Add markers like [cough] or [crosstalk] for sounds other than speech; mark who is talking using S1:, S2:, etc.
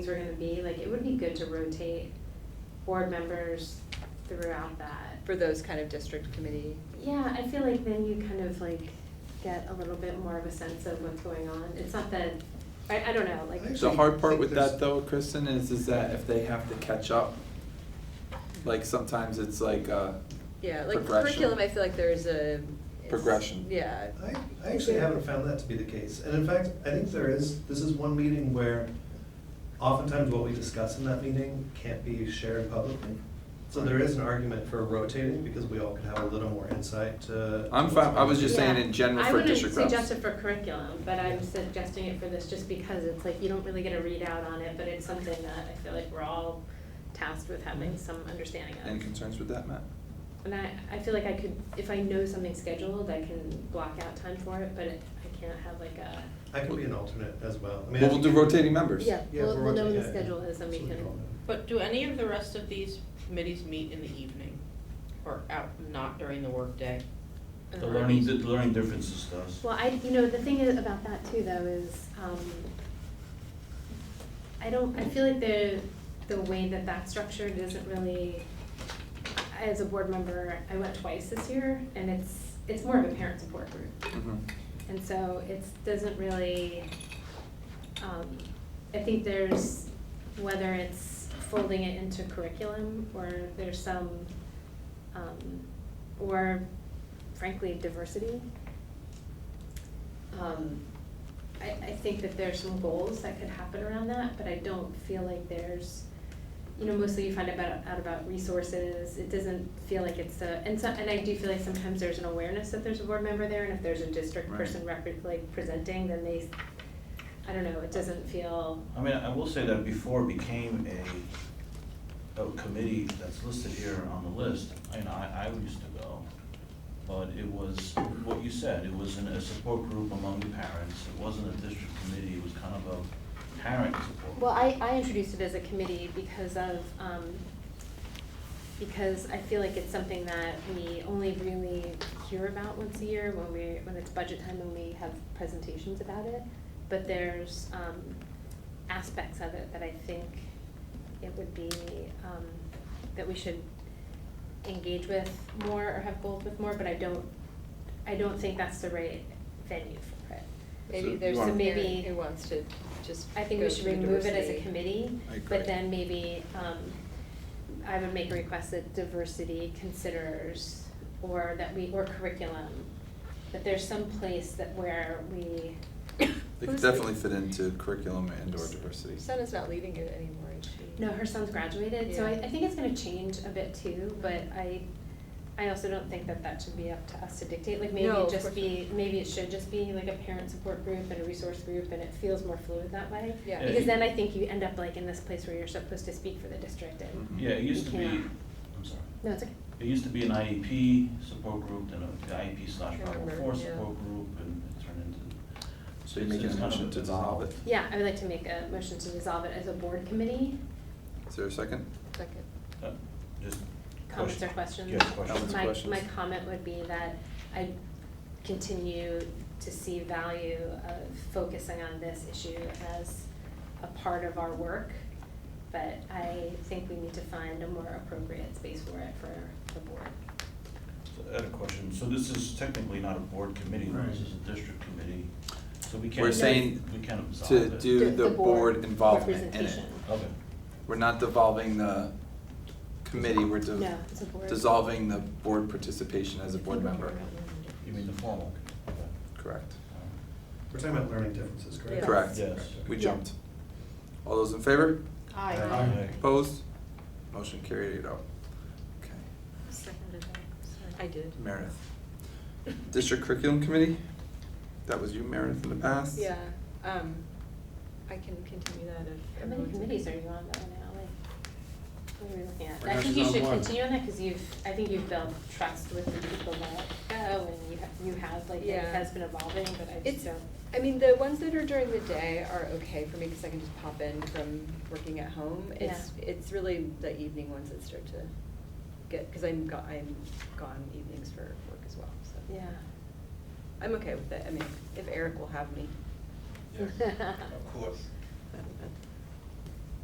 S1: things were gonna be, like, it would be good to rotate board members throughout that.
S2: for those kind of district committee.
S1: Yeah, I feel like then you kind of like get a little bit more of a sense of what's going on. It's not that, I, I don't know, like,
S3: I
S4: The
S3: actually
S4: hard part
S3: think
S4: with
S3: there's-
S4: that though, Kristen, is, is that if they have to catch up, like sometimes it's like, uh,
S2: Yeah, like
S4: Progression.
S2: curriculum, I feel like there's a. it's-
S4: Progression.
S2: Yeah.
S3: I, I actually haven't found that to be the case, and in fact, I think there is, this is one meeting where oftentimes what we discuss in that meeting can't be shared publicly. So there is an argument for rotating, because we all could have a little more insight to.
S4: I'm fine- I was just saying
S1: Yeah.
S4: in general for district
S1: I
S4: reps.
S1: wouldn't suggest it for curriculum, but I'm suggesting it for this just because it's like, you don't really get a readout on it, but it's something that I feel like we're all tasked with
S4: Mm-hmm.
S1: having some understanding of.
S4: any concerns with that, Matt?
S1: And I, I feel like I could, if I know something's scheduled, I can block out time for it, but it- I can't have like a,
S3: I can be an alternate as well. I mean, I
S4: Well, we'll
S3: think
S4: do
S3: it-
S4: rotating members.
S1: yeah,
S3: Yeah,
S1: we'll,
S3: we're
S1: we'll know when
S3: working
S1: the
S3: it.
S1: schedule is and we
S3: So we
S1: can.
S3: don't know.
S5: But do any of the rest of these committees meet in the evening or out, not during the workday?
S6: The
S2: Uh-huh.
S1: um,
S6: learning, the learning differences does.
S1: Well, I, you know, the thing is about that too, though, is, um, I don't, I feel like the, the way that that's structured isn't really, I- as a board member, I went twice this year, and it's, it's more of a parent support group.
S4: Mhm.
S1: And so it's, doesn't really, um, I think there's, whether it's folding it into curriculum, or there's some, um, or frankly, diversity. Um, I, I think that there's some goals that could happen around that, but I don't feel like there's, you know, mostly you find about, out about resources, it doesn't feel like it's a, and so, and I do feel like sometimes there's an awareness that there's a board member there, and if there's a district
S4: Right.
S1: person record, like, presenting, then they, I don't know, it doesn't feel,
S6: I mean, I will say that before it became a, a committee that's listed here on the list, you know, I, I used to go. But it was what you said, it was in a support group among the parents, it wasn't a district committee, it was kind of a parent support.
S1: Well, I, I introduced it as a committee because of, um, because I feel like it's something that we only really hear about once a year when we, when it's budget time and we have presentations about it. But there's, um, aspects of it that I think it would be, um, that we should engage with more or have goals with more, but I don't, I don't think that's the right venue for it.
S2: Maybe
S4: you
S2: there's
S4: want-
S2: some parent
S1: Maybe-
S2: who wants to just.
S1: I think we
S2: go
S1: should
S2: through
S1: remove it as a
S2: diversity.
S1: committee,
S4: I agree.
S1: but then maybe, um, I would make a request that diversity considers, or that we, or curriculum, that there's some place that where we.
S4: They could
S1: Who's-
S4: definitely fit into curriculum and or diversity.
S2: Sana's not leading it anymore, is she?
S1: No, her son's graduated, so I,
S2: Yeah.
S1: I think it's gonna change a bit too, but I, I also don't think that that should be up to us to dictate, like maybe
S2: No,
S1: it
S2: of
S1: just
S2: course
S1: be, maybe it should just be like a parent support group and a resource group, and it feels more fluid that way.
S2: Yeah. Yeah,
S1: Because
S6: you-
S1: then I think you end up like in this place where you're supposed to speak for the district and.
S4: Mhm.
S6: Yeah, it used to be,
S1: You
S6: I'm
S1: cannot.
S6: sorry.
S1: No, it's okay.
S6: It used to be an IEP support group, then a the IEP E slash
S2: Can't
S6: Bible
S2: remember,
S6: four
S2: yeah.
S6: support group, and it turned into.
S4: So you're
S6: it's-
S4: making
S6: it's
S4: a
S6: kind of
S4: motion
S6: a-
S4: to dissolve it.
S1: Yeah, I would like to make a motion to dissolve it as a board committee.
S4: Is there a second?
S2: Second.
S6: Uh, Just.
S1: Comments
S6: question-
S1: or questions?
S6: Yeah,
S4: Comments,
S6: questions.
S1: My,
S4: questions.
S1: my comment would be that I continue to see value of focusing on this issue as a part of our work, but I think we need to find a more appropriate space for it for the board.
S6: So I had a question, so this is technically not a board committee,
S4: Right.
S6: this is a district committee, so we can't.
S4: We're saying
S6: We can't absolve
S4: to
S6: it.
S4: do the board involvement in it.
S1: Representation.
S6: Okay,
S4: We're not devolving the committee, we're de-
S1: No, it's a board.
S4: dissolving the board participation as a board member.
S6: you mean the formal? Okay.
S4: Correct.
S6: All
S3: We're talking about learning differences, correct?
S2: Yeah.
S4: Correct.
S6: Yes.
S4: We
S2: Yeah.
S4: jumped. All those in favor?
S3: Aye.
S6: Aye.
S4: Opposed? Motion carried eight oh. Okay.
S2: Seconded I did.
S4: Meredith. District Curriculum Committee? That was you, Meredith, in the past?
S2: Yeah, um, I can continue that if.
S1: How many
S2: everyone's-
S1: committees are you on though now, like, what are we looking at?
S4: Right
S1: I
S4: now
S1: think you
S4: she's on
S1: should
S4: one.
S1: continue on that, cause you've, I think you've built trust with the people that go, and you have, you have, like, it
S2: Yeah.
S1: has been evolving, but I just
S2: It's,
S1: don't.
S2: I mean, the ones that are during the day are okay for me because I can just pop in from working at home. It's, it's really the evening ones that start to get, because I'm go, I'm gone evenings for work as well, so.
S1: Yeah.
S2: I'm [laughs] okay with it. I mean, if Eric will have me.
S6: Yeah. Of course.